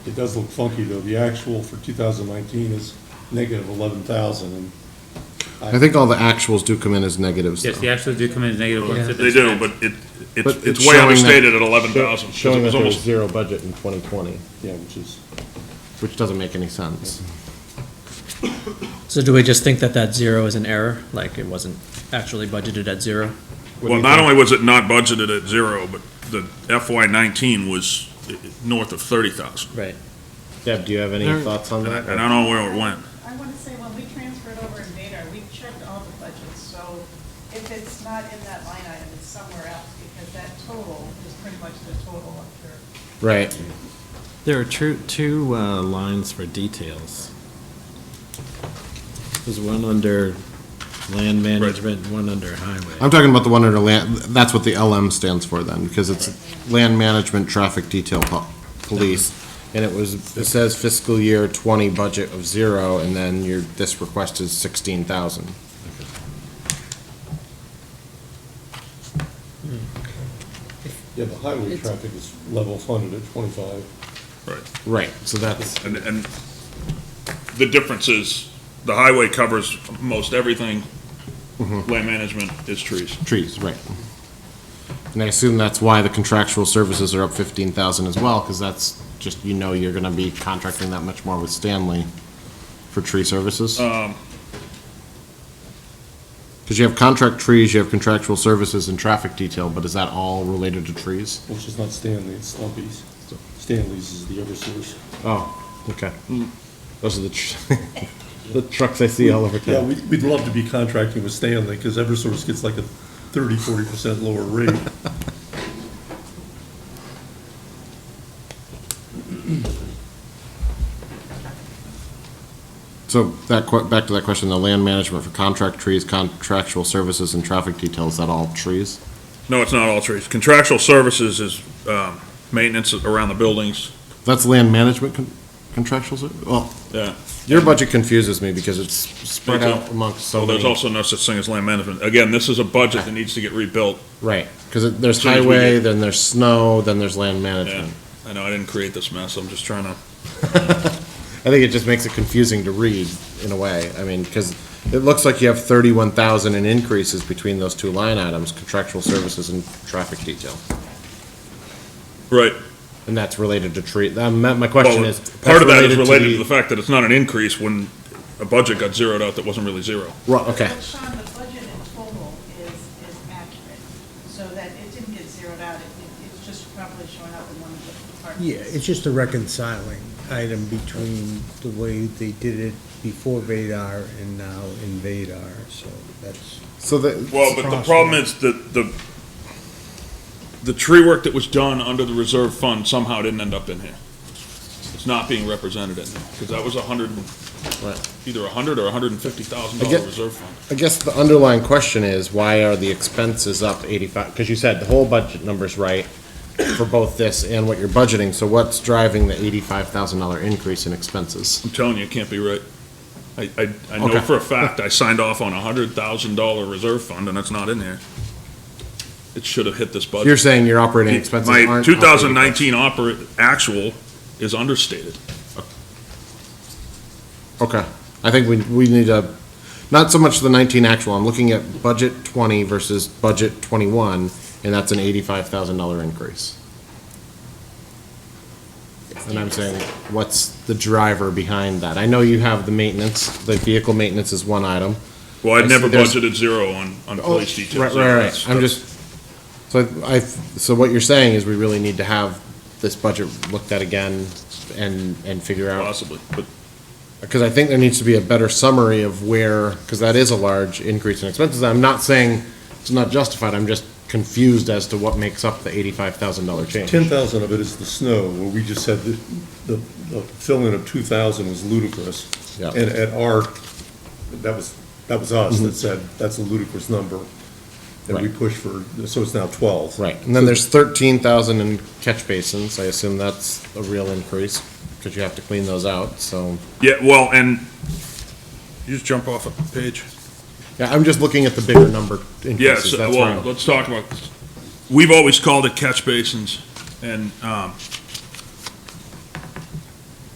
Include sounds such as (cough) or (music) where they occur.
It does look funky, though. The actual for 2019 is negative 11,000, and I think all the actuals do come in as negatives, Yes, though. the actuals do come in as negative. ones. They do, but it, But it's, it's it's showing way that- understated at eleven thousand, because Showing it that was there was zero almost, budget in 2020, yeah, which is, which doesn't make any sense. So do we just think that that zero is an error, like it wasn't actually budgeted at zero? well, not only was it not budgeted at zero, but the FY nineteen was i- i- north of thirty thousand. Right. Deb, do you have any thoughts on And I, that? and I don't know where it went. I want to say, when we transferred over in Vadar, we checked all the budgets, so if it's not in that line item, it's somewhere else, because that total is pretty much the total up there. Right. There are two, two uh, lines for details. There's one under land management, one under highway. I'm talking about the one under land, that's what the LM stands for then, because it's Land Management Traffic Detail Po- Police. And it was, it says fiscal year 20 budget of zero, and then your, this request is 16,000. yeah, the highway traffic is level funded at 25. Right, so that's, And, and the difference is, the highway covers most everything, land management is trees. trees, right. And I assume that's why the contractual services are up 15,000 as well, because that's just, you know, you're going to be contracting that much more with Stanley for tree services? Because you have contract trees, you have contractual services and traffic detail, but is that all related to trees? Which is not Stanley, it's Stumpy's. Stanley's is the Eversource. Oh, okay. Those are the, tr- (laughs) the trucks I see all over Yeah, town. we- we'd love to be contracting with Stanley, because Eversource gets like a 30, 40% lower rate. So that, que- back to that question, the land management for contract trees, contractual services and traffic detail, is that all trees? No, it's not all trees. Contractual services is, um, maintenance around the buildings, That's land management con- contractual, ser- well, yeah. your budget confuses me because it's spread out amongst so Well, there's many. also no such thing as land management. Again, this is a budget that needs to get rebuilt. Right, because there's Soon as we highway, get- then there's snow, then there's land Yeah, management. I know, I didn't create this mess, I'm just trying to, I think it just makes it confusing to read in a way. I mean, because it looks like you have thirty-one thousand in increases between those two line items, contractual services and traffic detail. right. And that's related to tree, um, my, my question Well, is. Part of that is that's related to the the- fact that it's not an increase when a budget got zeroed out that wasn't really zero. Ro- Okay, But Sean, the budget in total is, is accurate, so that it didn't get zeroed out, it, it- it's just probably showing up in one of the departments. Yeah, it's just a reconciling item between the way they did it before Vadar and now in Vadar, so that's. so the. Well, but the problem is that the, the tree work that was done under the reserve fund somehow didn't end up in here. It's not being represented in there, because that was a hundred, and- Right. either a hundred or a hundred and fifty thousand I dollar get- reserve fund. I guess the underlying question is, why are the expenses up eighty-five, because you said the whole budget number's right for both this and what you're budgeting, so what's driving the eighty-five thousand dollar increase in expenses? I'm telling you, it can't be right. I, I, I know Okay. for a fact, I signed off on a hundred thousand dollar reserve fund, and it's not in here. It should have hit this budget. You're saying your operating expenses aren't. My up two thousand nineteen oper, actual is understated. 85,000. Okay, I think we, we need to, not so much the nineteen actual, I'm looking at budget twenty versus budget twenty-one, and that's an eighty-five thousand dollar increase. And I'm saying, what's the driver behind that? I know you have the maintenance, the vehicle maintenance is one item. Well, I'd I see never there's- budgeted zero on, on Oh, police details. Right, right, right, I'm just, so I, so what you're saying is we really need to have this budget looked at again and, and figure out Possibly, but because I think there needs to be a better summary of where, because that is a large increase in expenses. I'm not saying it's not justified, I'm just confused as to what makes up the eighty-five thousand dollar change. 10,000 of it is the snow, where we just said that the, the fill-in of 2,000 was ludicrous. Yeah. And at our, that was, that was us that said, that's a ludicrous number. And we Mm-hmm. Right. pushed for, so it's now 12. Right, and then there's thirteen thousand in catch basins, I assume that's a real increase, because you have to clean those out, so. Yeah, well, and you just jump off a page. Yeah, I'm just looking at the bigger number Yes, increases, that's where well, I'm- let's talk about, this. we've always called it catch basins, and um,